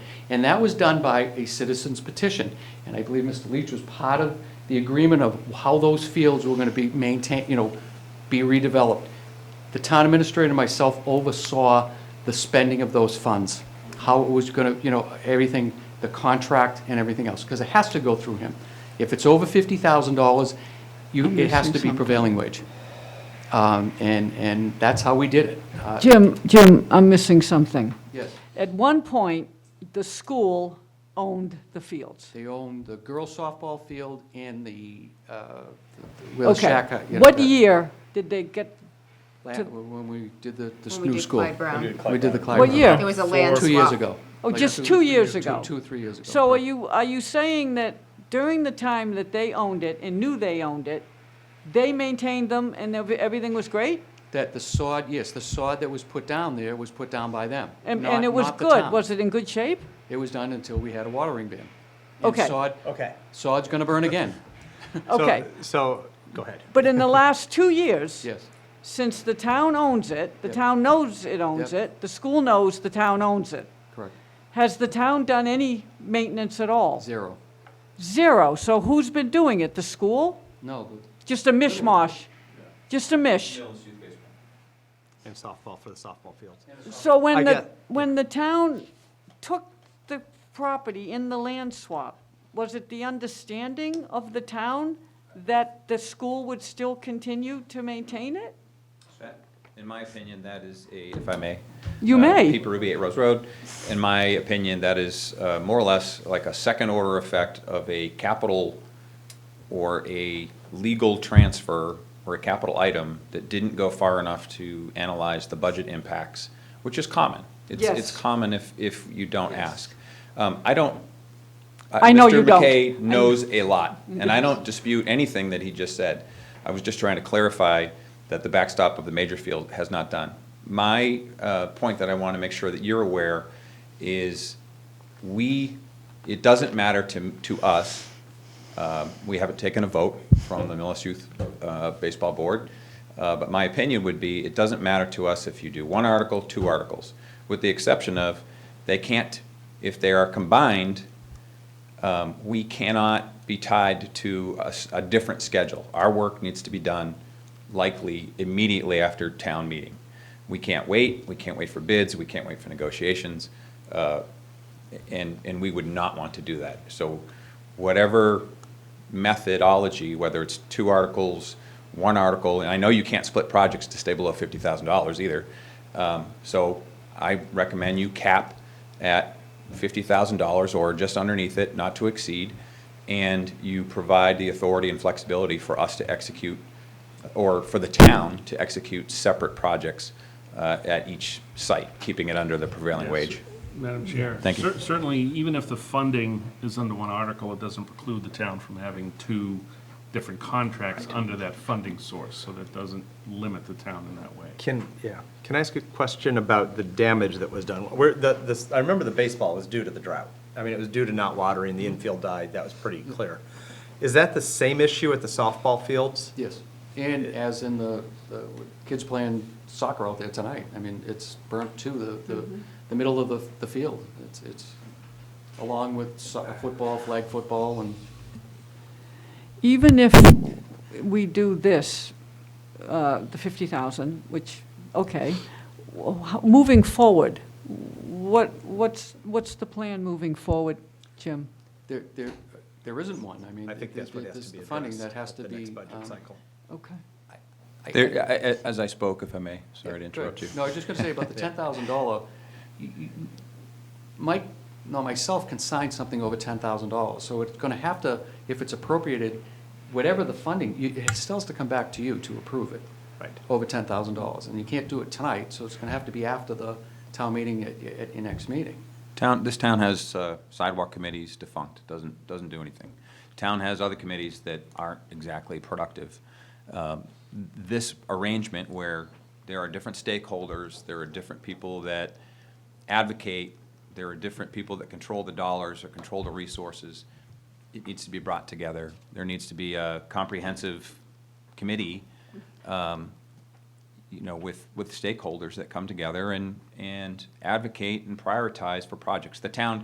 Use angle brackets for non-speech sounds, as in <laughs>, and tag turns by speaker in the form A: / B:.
A: And that was done by a citizen's petition. And I believe Mr. Leach was part of the agreement of how those fields were gonna be maintained, you know, be redeveloped. The town administrator and myself oversaw the spending of those funds, how it was gonna, you know, everything, the contract and everything else, because it has to go through him. If it's over fifty thousand dollars, you,
B: I'm
A: it has to
B: missing
A: be
B: something.
A: prevailing wage. Um, and, and that's how we did it. Uh,
B: Jim, Jim, I'm missing something.
A: Yes,
B: At one point, the school owned the fields.
A: they own the girls softball field and the, uh, where the
B: Okay.
A: shack, uh, you know,
B: What
A: the-
B: year did they get,
A: la-
B: to-
A: When we did the, this
C: When we
A: new
C: did
A: school.
C: Clyde Brown.
A: We did the Clyde.
B: What
A: Brown.
B: year?
C: It was a land
A: Two years
C: swap.
A: ago.
B: Oh,
A: Like
B: just two years
A: two-
B: ago.
A: Two, three years ago.
B: so are you, are you saying that during the time that they owned it and knew they owned it, they maintained them and ev- everything was great?
A: That the sod, yes, the sod that was put down there was put down by them.
B: And,
A: not-
B: and it was
A: not the
B: good?
A: town.
B: Was it in good shape?
A: <laughs> It was done until we had a watering ban. And
B: Okay.
A: sod,
D: Okay.
A: sod's gonna burn again,
D: So-
B: Okay.
D: So, go ahead.
B: But in the last two years,
A: yes.
B: since the town owns it, the
A: Yep.
B: town knows it owns
A: Yep.
B: it, the school knows the town owns it,
A: Correct.
B: has the town done any maintenance at all?
A: Zero.
B: Zero. So who's been doing it? The school?
A: No,
B: Just a mishmash. Just a mish.
D: And softball for the softball fields.
B: So when
D: I
B: the,
D: get-
B: when the town took the property in the land swap, was it the understanding of the town that the school would still continue to maintain it?
E: That- In my opinion, that is a, if I may.
B: You
E: uh,
B: may.
E: Pete Ruby, 8 Rose Road. In my opinion, that is uh, more or less like a second-order effect of a capital or a legal transfer or a capital item that didn't go far enough to analyze the budget impacts, which is common. It's-
B: Yes.
E: It's common if, if you don't ask. Um, I don't,
B: I know you don't.
E: Mr. Uh, McKay knows a lot, and I don't dispute anything that he just said. I was just trying to clarify that the backstop of the major field has not done. My uh, point that I want to make sure that you're aware is we, it doesn't matter to, to us. Um, We haven't taken a vote from the Millis Youth uh, Baseball Board, uh, but my opinion would be, it doesn't matter to us if you do one article, two articles, with the exception of, they can't, if they are combined, um, we cannot be tied to a, s- a different schedule. Our work needs to be done likely immediately after town meeting. We can't wait, we can't wait for bids, we can't wait for negotiations, uh, and, and we would not want to do that. So whatever methodology, whether it's two articles, one article, and I know you can't split projects to stay below fifty thousand dollars either. Um, So I recommend you cap at fifty thousand dollars or just underneath it, not to exceed, and you provide the authority and flexibility for us to execute, or for the town to execute separate projects uh, at each site, keeping it under the prevailing
F: Yes.
E: wage.
F: Madam Chair.
E: Thank you.
F: cer- Certainly, even if the funding is under one article, it doesn't preclude the town from having two different contracts under that funding source, so that doesn't limit the town in that way.
D: Can, yeah, can I ask a question about the damage that was done? Where, the, this, I remember the baseball was due to the drought. I mean, it was due to not watering, the infield died, that was pretty clear. Is that the same issue at the softball fields?
A: yes. And as in the, the kids playing soccer out there tonight, I mean, it's burnt to the, the, the middle of the, the field. It's, it's along with so- football, flag football and.
B: Even if we do this, uh, the 50,000, which, okay, wh- how- moving forward, what, what's, what's the plan moving forward, Jim?
A: There, there, there isn't one, I mean.
D: I think
A: th-
D: that's what
A: th-
D: has
A: this-
D: to be
A: the Funding
D: addressed
A: that has
D: at
A: to
D: the
A: be.
D: next budget
A: um,
D: cycle.
B: Okay.
E: There, I- I- as I spoke, if I may, sorry to
A: Yeah,
E: interrupt you.
A: No, I was just gonna say about
E: <laughs>
A: the ten thousand dollar, Mike, no, myself can sign something over ten thousand dollars, so it's gonna have to, if it's appropriated, whatever the funding, you- it still has to come back to you to approve it.
D: Right.
A: Over ten thousand dollars, and you can't do it tonight, so it's gonna have to be after the town meeting at, at your next meeting.
E: Town, this town has uh, sidewalk committees defunct, doesn't, doesn't do anything. Town has other committees that aren't exactly productive. Um, This arrangement where there are different stakeholders, there are different people that advocate, there are different people that control the dollars or control the resources, it needs to be brought together. There needs to be a comprehensive committee you know, with, with stakeholders that come together and, and advocate and prioritize for projects. The town